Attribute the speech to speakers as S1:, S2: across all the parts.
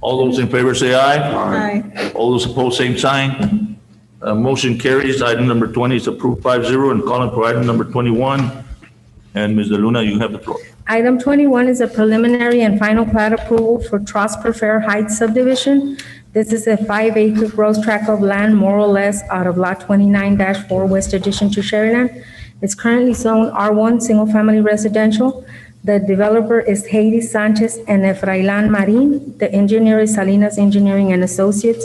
S1: All those in favor say aye.
S2: Aye.
S1: All those opposed, same sign. Uh, motion carries. Item number twenty is approved five zero and calling for item number twenty-one. And Ms. DeLuna, you have the floor.
S3: Item 21 is a preliminary and final plat approval for Trosper Fair Heights subdivision. This is a five-acre gross tract of land, more or less, out of Lot 29-4 West Addition to Sheridan. It's currently zoned R1, single-family residential. The developer is Haiti Sanchez and Efrailan Marin. The engineer is Salinas Engineering and Associates.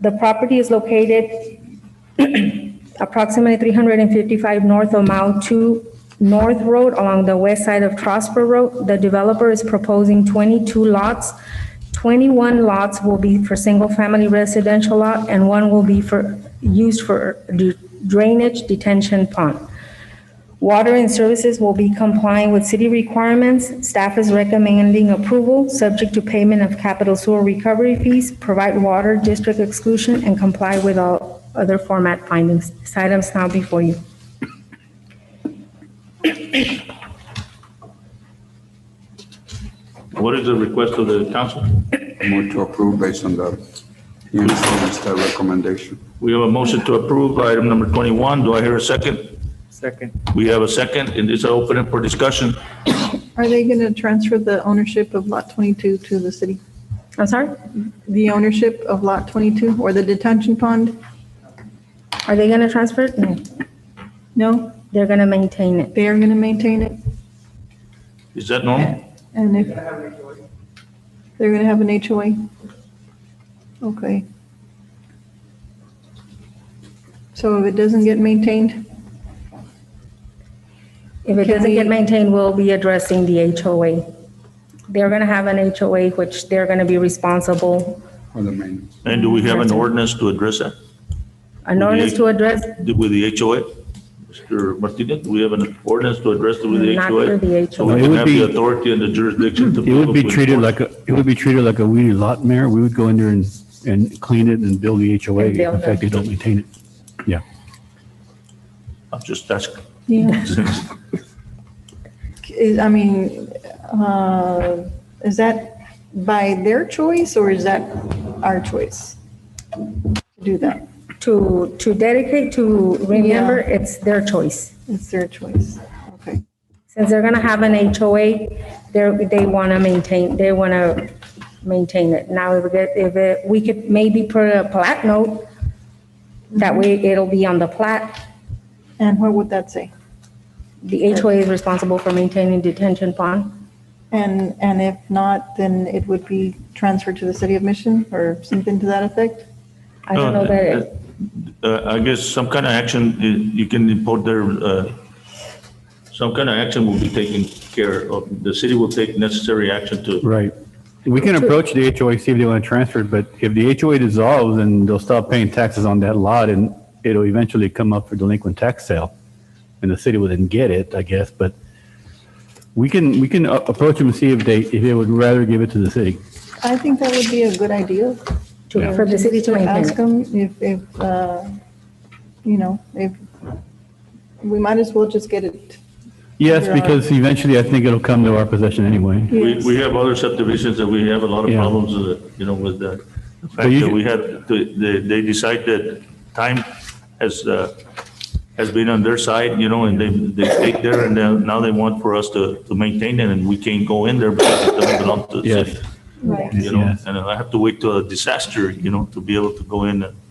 S3: The property is located approximately 355 north of Mile 2 North Road along the west side of Trosper Road. The developer is proposing 22 lots. 21 lots will be for single-family residential lot, and one will be for, used for d- drainage detention pond. Water and services will be complying with city requirements. Staff is recommending approval, subject to payment of capital sewer recovery fees, provide water district exclusion, and comply with all other format findings. This item is now before you.
S1: What is the request of the council?
S4: Move to approve based on the uniform and staff recommendation.
S1: We have a motion to approve item number twenty-one. Do I hear a second?
S5: Second.
S1: We have a second and it's open for discussion.
S2: Are they going to transfer the ownership of Lot 22 to the city?
S3: I'm sorry?
S2: The ownership of Lot 22 or the detention pond?
S3: Are they going to transfer it? No,
S2: No,
S3: they're going to maintain it.
S2: they are going to maintain it.
S1: Is that normal?
S2: And if they're going to have an HOA? Okay. So if it doesn't get maintained,
S3: If it
S2: Can
S3: doesn't get
S2: we-
S3: maintained, we'll be addressing the HOA. They're going to have an HOA, which they're going to be responsible.
S4: For the maintenance.
S1: And do we have an ordinance to address that
S3: An
S1: Would
S3: ordinance
S1: you-
S3: to address,
S1: with the HOA? Mr. Martinez, do we have an ordinance to address it with the
S3: not for
S1: HOA?
S3: the
S1: So
S3: HOA.
S1: we
S6: It
S1: can
S6: would
S1: have the
S6: be-
S1: authority and the jurisdiction to.
S6: It would be
S1: follow up with
S6: treated
S1: ordinance.
S6: like, a it would be treated like a weedy lot, Mayor. We would go in there and, and clean it and build the HOA.
S3: And build
S6: In fact, they don't maintain it. Yeah.
S1: I'm just asking.
S2: yeah, is- I mean, uh, is that by their choice or is that our choice to do that?
S3: To, to dedicate, to remember, it's their choice.
S2: It's their choice. Okay.
S3: Since they're gonna have an HOA, they're, they wanna maintain, they wanna maintain it. Now, if it, if it, we could maybe put a plat note, that way
S2: Mm-hmm.
S3: it'll be on the plat.
S2: And what would that say?
S3: The HOA is responsible for maintaining detention pond.
S2: And, and if not, then it would be transferred to the city of Mission or something to that effect?
S3: I don't
S1: Oh,
S3: know that it,
S1: Uh, I guess some kind of action, uh, you can import their, uh, some kind of action will be taken care of. The city will take necessary action to,
S6: Right. We can approach the HOA, see if they want to transfer it, but if the HOA dissolves, then they'll stop paying taxes on that lot and it'll eventually come up for delinquent tax sale. And the city will then get it, I guess, but we can, we can a- approach them and see if they, if they would rather give it to the city.
S2: I think that would be a good idea.
S3: to- for the city to maintain
S2: Ask
S3: it.
S2: them if, if, uh, you know, if, we might as well just get it.
S6: Yes,
S2: Yeah.
S6: because eventually I think it'll come to our possession anyway.
S1: we, we have other subdivisions that we have a lot of
S6: Yeah.
S1: problems, uh, you know, with the the fact
S6: you
S1: that
S6: can-
S1: we have, to- they, they decide that time has, uh, has been on their side, you know, and they, they take there and now- now they want for us to, to maintain it and we can't go in there because it doesn't belong to the
S6: Yes.
S1: city.
S2: Right.
S1: you know,
S6: Yes.
S1: and I have to wait till a disaster, you know, to be able to go in. and-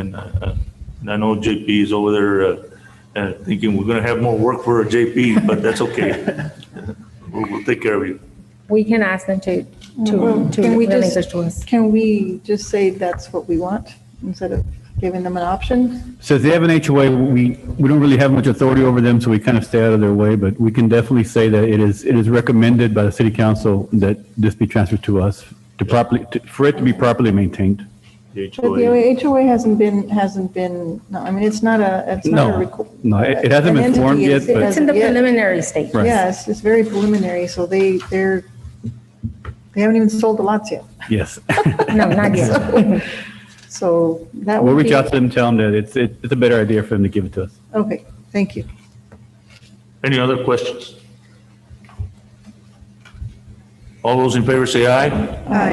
S1: And uh, uh, and I know JP is over there uh, uh, thinking we're going to have more work for JP, but that's okay. We'll we'll take care of you.
S3: We can ask them to, to,
S2: Well,
S3: to
S2: Mm-hmm. can we just-
S3: relinquish to us.
S2: Can we just say that's what we want instead of giving them an option?
S6: Since they have an HOA, we, we don't really have much authority over them, so we kind of stay out of their way, but we can definitely say that it is, it is recommended by the city council that this be transferred to us to properly, to- for it to be properly maintained.
S1: The
S2: But the
S1: HOA.
S2: HOA hasn't been, hasn't been, no, I mean, it's not a, it's not a.
S6: No,
S2: requ-
S6: no, it it hasn't
S2: an
S6: been
S2: entity
S6: formed
S2: is-
S6: yet,
S2: it
S6: but
S3: It's in the
S2: Yeah.
S3: preliminary stage.
S6: Right.
S2: Yes, it's very preliminary, so they, they're, they haven't even sold the lots yet.
S6: yes.
S3: No, not yet.
S2: So that
S6: We'll
S2: would be.
S6: reach out to them, tell them that it's, it- it's a better idea for them to give it to us.
S2: Okay, thank you.
S1: Any other questions? All those in favor say aye.